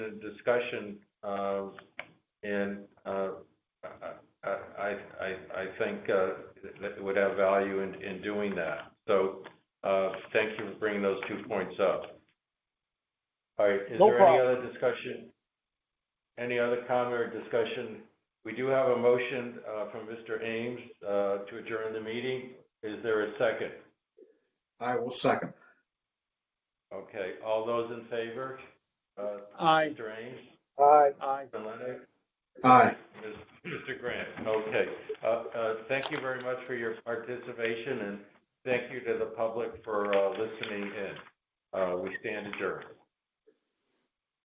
the discussion, and uh, I think uh, that it would have value in doing that. So, uh, thank you for bringing those two points up. All right. No Is there any other discussion? Any other comment or discussion? We do have a motion uh, from Mr. Ames uh, to adjourn the meeting. Is there a second? I will second. Okay, all those in favor? Uh, Aye. Mr. Ames, Aye. Aye. Mr. Leonard? Aye. Mr. Grant, okay. Uh, uh, Thank you very much for your participation, and thank you to the public for uh, listening in. Uh, We stand adjourned.